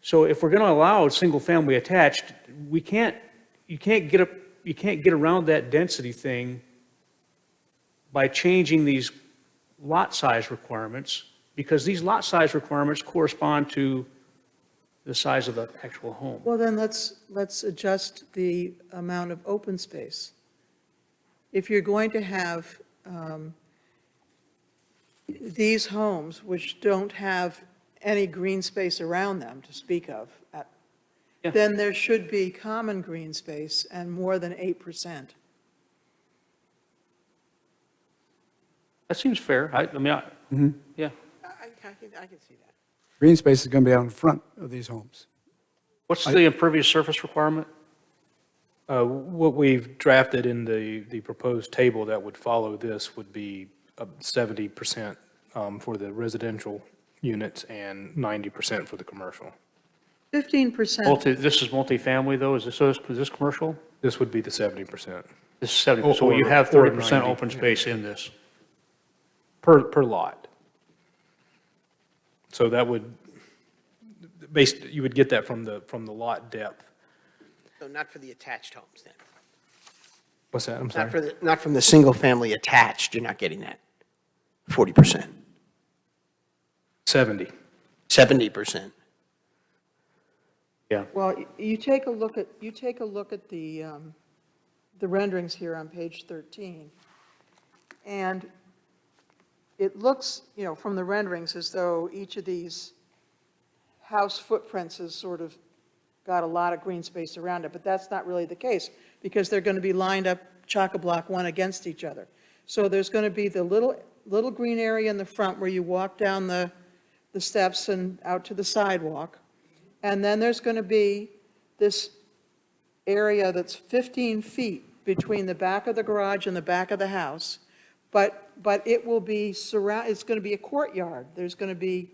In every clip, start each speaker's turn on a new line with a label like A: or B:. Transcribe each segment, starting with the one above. A: So if we're going to allow a single-family attached, we can't, you can't get up, you can't get around that density thing by changing these lot size requirements, because these lot size requirements correspond to the size of the actual home.
B: Well, then let's, let's adjust the amount of open space. If you're going to have um, these homes, which don't have any green space around them to speak of, uh,
A: Yeah.
B: then there should be common green space and more than 8%.
A: That seems fair. I, I mean, I, yeah.
C: I, I I can, I can see that.
D: Green space is going to be out in front of these homes.
A: What's the impervious surface requirement?
E: Uh, What we've drafted in the, the proposed table that would follow this would be up 70% um, for the residential units and 90% for the commercial.
B: 15%,
A: Multi, this is multifamily though, is this, so is this commercial?
E: This would be the 70%
A: This is 70, so
E: Or-
A: you have
E: or
A: 30%
E: 90,
A: open space in this.
E: per, per lot. So that would, based, you would get that from the, from the lot depth.
C: So not for the attached homes then?
E: What's that? I'm
C: Not for
E: sorry.
C: the, not from the single-family attached, you're not getting that. 40%,
E: 70.
C: 70%.
A: Yeah.
B: well, y- you take a look at, you take a look at the, um, the renderings here on page 13. And it looks, you know, from the renderings, as though each of these house footprints has sort of got a lot of green space around it, but that's not really the case, because they're going to be lined up chock-a-block one against each other. So there's going to be the little, little green area in the front where you walk down the, the steps and out to the sidewalk. And then there's going to be this area that's 15 feet between the back of the garage and the back of the house, but, but it will be surround, it's going to be a courtyard. There's going to be,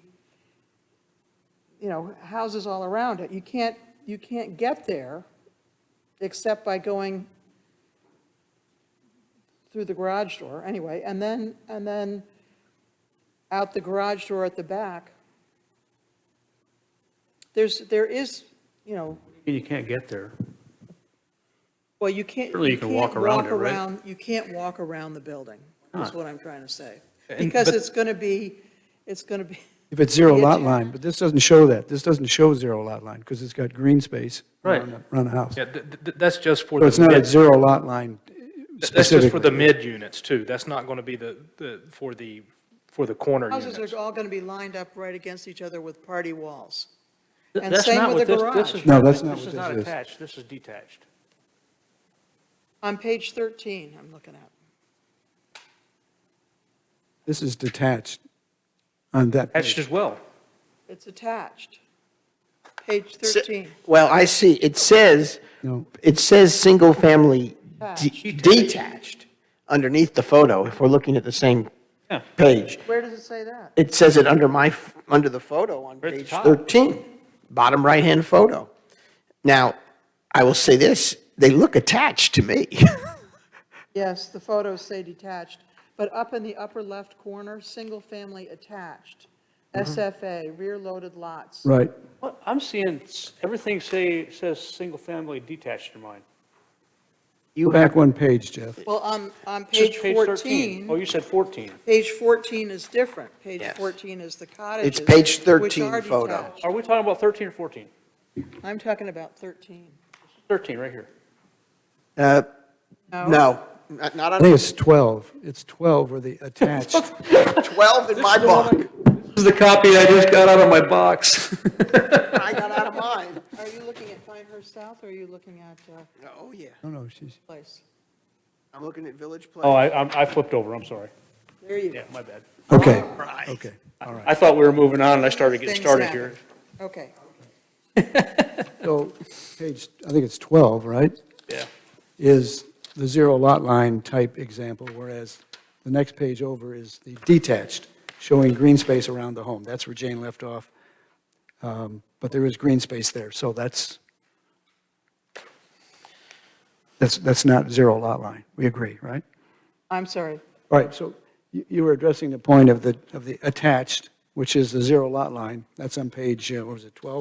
B: you know, houses all around it. You can't, you can't get there except by going through the garage door, anyway, and then, and then out the garage door at the back. There's, there is, you know,
A: You can't get there.
B: well, you can't.
A: Surely you can walk
B: can't
A: around
B: walk
A: it, right?
B: around- You can't walk around the building, is
A: Huh.
B: what I'm trying to say.
E: And-
B: Because
E: but-
B: it's going to be, it's going to be,
D: If it's zero
B: Yeah,
D: lot
B: too.
D: line, but this doesn't show that. This doesn't show zero lot line because it's got green space around
A: Right.
D: the- around the house.
E: Yeah, th- th- th- that's just for.
D: So
E: the
D: it's not
E: mid-
D: a zero lot line uh,
E: Th- That's just for the
D: specifically.
E: mid units too. That's not going to be the, the, for the, for the corner
B: houses
E: units.
B: are all going to be lined up right against each other with party walls.
A: Th-
B: And
A: that's
B: same
A: not
B: with the
A: this- this
B: garage.
A: is-
D: No, that's not what
A: This is
D: this
A: not
D: is.
A: attached, this is detached.
B: On page 13, I'm looking at.
D: This is detached on that page.
A: Attached as well.
B: It's attached. Page
C: Se-
B: 13.
C: Well, I see, it says,
D: No.
C: it says single-family
A: Ah.
C: de-
A: Detached.
C: detached underneath the photo, if we're looking at the same
A: Yeah.
C: page.
B: Where does it say that?
C: It says it under my, f- under the photo on
A: Right at the
C: page
A: top.
C: 13, bottom right-hand photo. Now, I will say this, they look attached to me.
B: Yes, the photos say detached, but up in the upper left corner, single-family attached,
A: Mm-hmm.
B: SFA, rear-loaded lots.
D: Right.
A: What, I'm seeing, s- everything say, says single-family detached in mine.
D: Go back one page, Jeff.
B: Well, on, on
A: This is
B: page
A: Oh,
B: 14,
A: you said 14.
B: page 14 is different. Page
C: Yes.
B: 14 is the cottages.
C: page
B: which
C: 13
B: are
C: photo.
B: detached.
A: Are we talking about 13 or 14?
B: I'm talking about 13.
A: 13, right here.
C: Uh, No, not not
D: I think
C: on
D: it's 12. It's 12 where the attached.
C: 12 in my book.
E: This is the copy I just got out of my box.
C: I got out of mine.
B: Are you looking at Pinehurst South, or are you looking at uh,
C: Oh, yeah.
D: No, no, she's,
B: Place?
C: I'm looking at Village Place.
A: Oh, I, I'm- I flipped over, I'm sorry.
B: There you go.
A: Yeah, my bad.
D: okay,
C: Right.
D: okay, all right.
A: I thought we were moving on, and I started getting
B: Things
A: started
B: happen.
A: here.
B: Okay.
D: So page, I think it's 12, right?
A: Yeah.
D: Is the zero lot line type example, whereas the next page over is the detached, showing green space around the home. That's where Jane left off. Um, But there is green space there, so that's, that's, that's not zero lot line. We agree, right?
B: I'm sorry.
D: All right, so you you were addressing the point of the, of the attached, which is the zero lot line. That's on page, uh, what was it, 12?